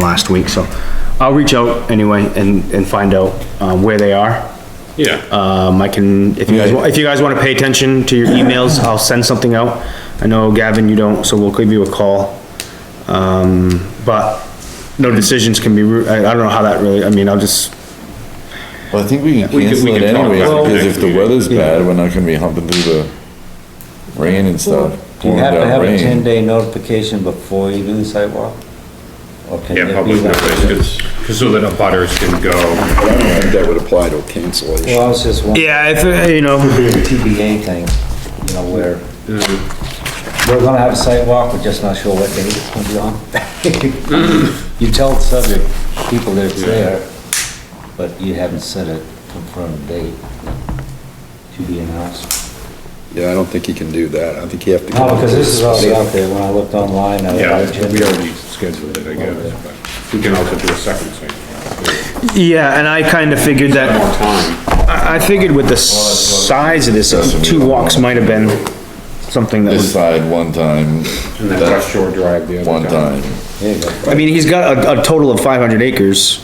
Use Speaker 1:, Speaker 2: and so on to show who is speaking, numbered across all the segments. Speaker 1: last week, so I'll reach out anyway and, and find out, um, where they are.
Speaker 2: Yeah,
Speaker 1: Um, I can, if you guys, wa- if you guys wanna pay attention to your emails, I'll send something out. I know Gavin, you don't, so we'll give you a call. Um, but no decisions can be, ru- I, I don't know how that really, I mean, I'll just,
Speaker 3: Well, I think we can
Speaker 2: We could-
Speaker 3: cancel
Speaker 2: we
Speaker 3: it
Speaker 2: could talk
Speaker 3: anyway,
Speaker 2: about it
Speaker 3: because
Speaker 2: next
Speaker 3: if the
Speaker 2: meeting.
Speaker 3: weather's bad, we're not gonna be humping through the rain and stuff.
Speaker 4: Do you
Speaker 3: pouring
Speaker 4: have to
Speaker 3: down
Speaker 4: have a
Speaker 3: rain.
Speaker 4: ten day notification before you do the sidewalk? Or can
Speaker 2: yeah,
Speaker 4: it be
Speaker 2: public
Speaker 4: like-
Speaker 2: notice, cause, 'cause so that the butters can go.
Speaker 5: That would apply to a
Speaker 4: Well, I
Speaker 5: cancellation.
Speaker 4: was just wondering,
Speaker 1: yeah, if, uh, you know.
Speaker 4: TBA thing, you know, where
Speaker 2: Mm.
Speaker 4: we're gonna have a sidewalk, we're just not sure what day it's gonna be
Speaker 2: Mm.
Speaker 4: on. You tell the subject, people that it's there, but you haven't set a confirmed date to be announced.
Speaker 5: Yeah, I don't think he can do that. I think you have to.
Speaker 4: No, because this is already out there, when I looked online, I.
Speaker 2: Yeah, we already scheduled it, I guess, but we can also do a second thing.
Speaker 1: Yeah, and I kinda figured that.
Speaker 2: More time,
Speaker 1: I, I figured with the size of this, two walks might have been something that
Speaker 3: This
Speaker 1: was,
Speaker 3: side one time,
Speaker 2: and then West Shore Drive the other
Speaker 3: one time.
Speaker 4: There you go.
Speaker 1: I mean, he's got a, a total of five hundred acres.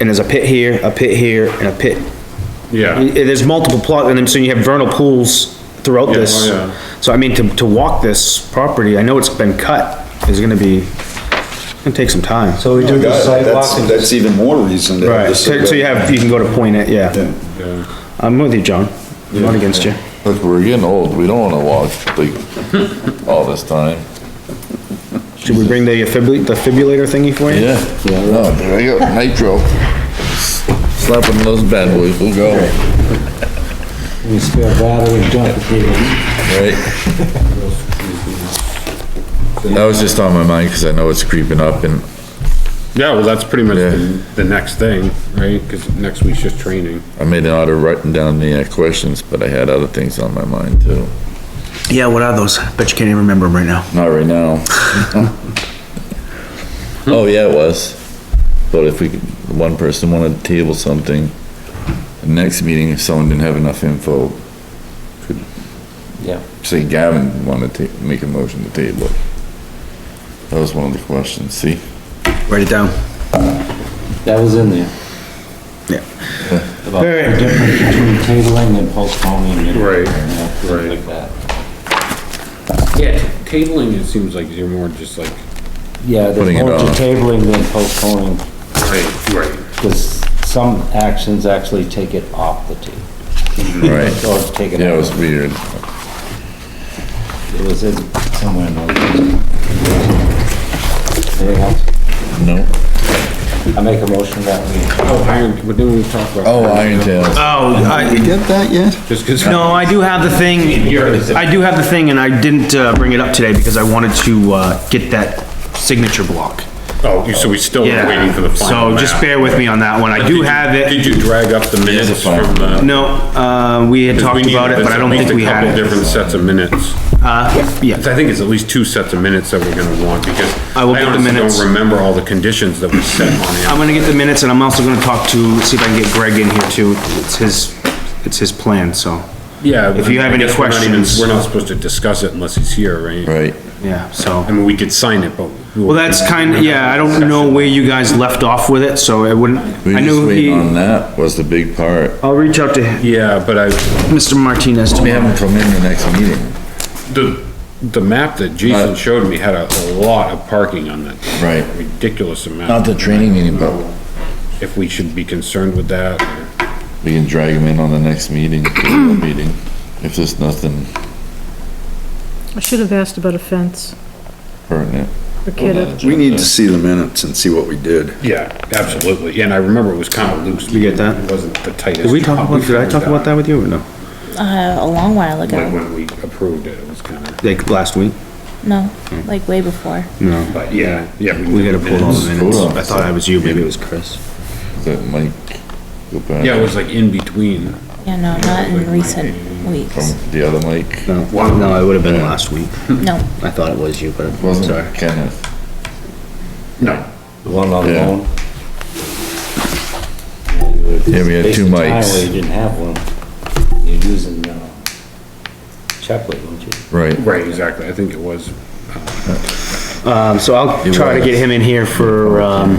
Speaker 1: And there's a pit here, a pit here, and a pit. I-
Speaker 2: Yeah,
Speaker 1: There's multiple plots, and then so you have vernal pools throughout
Speaker 2: Yeah, oh,
Speaker 1: this.
Speaker 2: yeah.
Speaker 1: So I mean, to, to walk this property, I know it's been cut, is gonna be, gonna take some time.
Speaker 4: So we do the sidewalk
Speaker 5: That's,
Speaker 4: and
Speaker 5: that's even more reason. to have
Speaker 1: Right,
Speaker 5: this-
Speaker 1: so so you have, you can go to point it, yeah.
Speaker 5: Yeah.
Speaker 2: yeah,
Speaker 1: I'm with you, John. I'm not against you.
Speaker 3: Look, we're getting old, we don't wanna walk like all this time.
Speaker 1: Should we bring the fibri- the defibrillator thingy for you?
Speaker 3: Yeah, no, there you go, nitro. Slapping those bad boys, we'll go,
Speaker 4: we spare battery, junk people.
Speaker 3: right? That was just on my mind, cause I know it's creeping up and
Speaker 2: yeah, well, that's pretty much the,
Speaker 3: Yeah.
Speaker 2: the next thing, right, cause next week's just training.
Speaker 3: I made an order writing down the uh, questions, but I had other things on my mind too.
Speaker 1: Yeah, what are those? Bet you can't even remember them right now.
Speaker 3: Not right now. Oh, yeah, it was. But if we, could- one person wanted to table something, the next meeting, if someone didn't have enough info, could
Speaker 4: Yeah.
Speaker 3: say Gavin wanted to make a motion to table. it. That was one of the questions, see?
Speaker 1: Write it down.
Speaker 4: That was in there.
Speaker 1: Yeah.
Speaker 4: About the
Speaker 1: Alright.
Speaker 4: difference between tabling and postponing and.
Speaker 2: Right,
Speaker 4: you know, things
Speaker 2: right.
Speaker 4: Like that.
Speaker 2: Yeah, tabling, it seems like you're more just like,
Speaker 4: Yeah,
Speaker 3: Putting
Speaker 4: there's
Speaker 3: it
Speaker 4: more to
Speaker 3: off.
Speaker 4: tabling than postponing,
Speaker 2: right, right,
Speaker 4: because some actions actually take it off the table.
Speaker 3: Right.
Speaker 4: Or take it
Speaker 3: Yeah, it was
Speaker 4: out.
Speaker 3: weird.
Speaker 4: It was in somewhere in those. Anything else?
Speaker 3: No.
Speaker 4: I make a motion that
Speaker 2: oh, iron, what did we talk about?
Speaker 3: Oh, Iron Tales.
Speaker 1: Oh,
Speaker 5: You
Speaker 1: I,
Speaker 5: get that yet?
Speaker 2: Just cause.
Speaker 1: no, I do have the thing, I do have the thing, and I didn't, uh, bring it up today because I wanted to, uh, get that signature block.
Speaker 2: Oh, you- so we still are waiting for the
Speaker 1: Yeah,
Speaker 2: final
Speaker 1: so just
Speaker 2: map.
Speaker 1: bear with me on that one, I
Speaker 2: Did
Speaker 1: do
Speaker 2: you-
Speaker 1: have it,
Speaker 2: Did you drag up the minutes
Speaker 3: final
Speaker 2: from the?
Speaker 1: no, uh, we had talked about it, but I don't think we had
Speaker 2: There's at
Speaker 1: it.
Speaker 2: least a couple different sets of minutes.
Speaker 1: Uh, yeah,
Speaker 2: 'Cause I think it's at least two sets of minutes that we're gonna want, because I
Speaker 1: I will get the
Speaker 2: honestly
Speaker 1: minutes.
Speaker 2: don't remember all the conditions that were set on
Speaker 1: I'm
Speaker 2: it.
Speaker 1: gonna get the minutes, and I'm also gonna talk to, see if I can get Greg in here too, it's his, it's his plan, so,
Speaker 2: Yeah.
Speaker 1: If you have
Speaker 2: I
Speaker 1: any
Speaker 2: guess we're not even-
Speaker 1: questions-
Speaker 2: We're not supposed to discuss it unless he's here, right?
Speaker 3: Right.
Speaker 1: yeah, so.
Speaker 2: I mean, we could sign it, but.
Speaker 1: Well, that's kind, of yeah, I don't know where you guys left off with it, so I wouldn't,
Speaker 3: We
Speaker 1: I
Speaker 3: were just
Speaker 1: know
Speaker 3: waiting on
Speaker 1: he,
Speaker 3: that was the big part.
Speaker 1: I'll reach out to
Speaker 2: Yeah, but I,
Speaker 1: Mr. Martinez
Speaker 3: We
Speaker 1: tomorrow.
Speaker 3: haven't come in the next meeting.
Speaker 2: the, the map that Jason showed me had a a lot of parking on that.
Speaker 3: Right.
Speaker 2: Ridiculous amount.
Speaker 3: Not the training meeting, but
Speaker 2: If we should be concerned with that. or-
Speaker 3: We can drag him in on the next meeting, regular meeting, if there's nothing
Speaker 6: I should have asked about a fence
Speaker 3: pertinent.
Speaker 6: for kiddo.
Speaker 5: We need to see the minutes and see what we did.
Speaker 2: Yeah, absolutely. And I remember it was kind of loose.
Speaker 1: You get that?
Speaker 2: It wasn't the tightest.
Speaker 1: Did we talk about, did I talk about that with you or no?
Speaker 7: Uh, a long while
Speaker 2: When,
Speaker 7: ago.
Speaker 2: when we approved it, it was kind of,
Speaker 1: Like last week?
Speaker 7: No, like way before.
Speaker 1: No.
Speaker 2: but yeah, yeah.
Speaker 1: We gotta pull all the minutes.
Speaker 3: Hold on.
Speaker 1: I thought I was you, maybe it was Chris.
Speaker 3: That might go back.
Speaker 2: Yeah, it was like in between.
Speaker 7: Yeah, no, not in recent weeks.
Speaker 3: From the other mic,
Speaker 1: No, no, it would have been last week.
Speaker 7: No.
Speaker 1: I thought it was you, but I'm sorry.
Speaker 3: wasn't Kenneth.
Speaker 2: No.
Speaker 4: we, one on
Speaker 3: Yeah.
Speaker 4: loan.
Speaker 3: Yeah, we had
Speaker 4: Based
Speaker 3: two
Speaker 4: on time where You
Speaker 3: mics,
Speaker 4: didn't have one. You're using, uh, Chaplin, weren't you?
Speaker 3: right.
Speaker 2: Right, exactly. I think it was.
Speaker 1: Um, so I'll
Speaker 3: It
Speaker 1: try to
Speaker 3: was.
Speaker 1: get him in here for, um,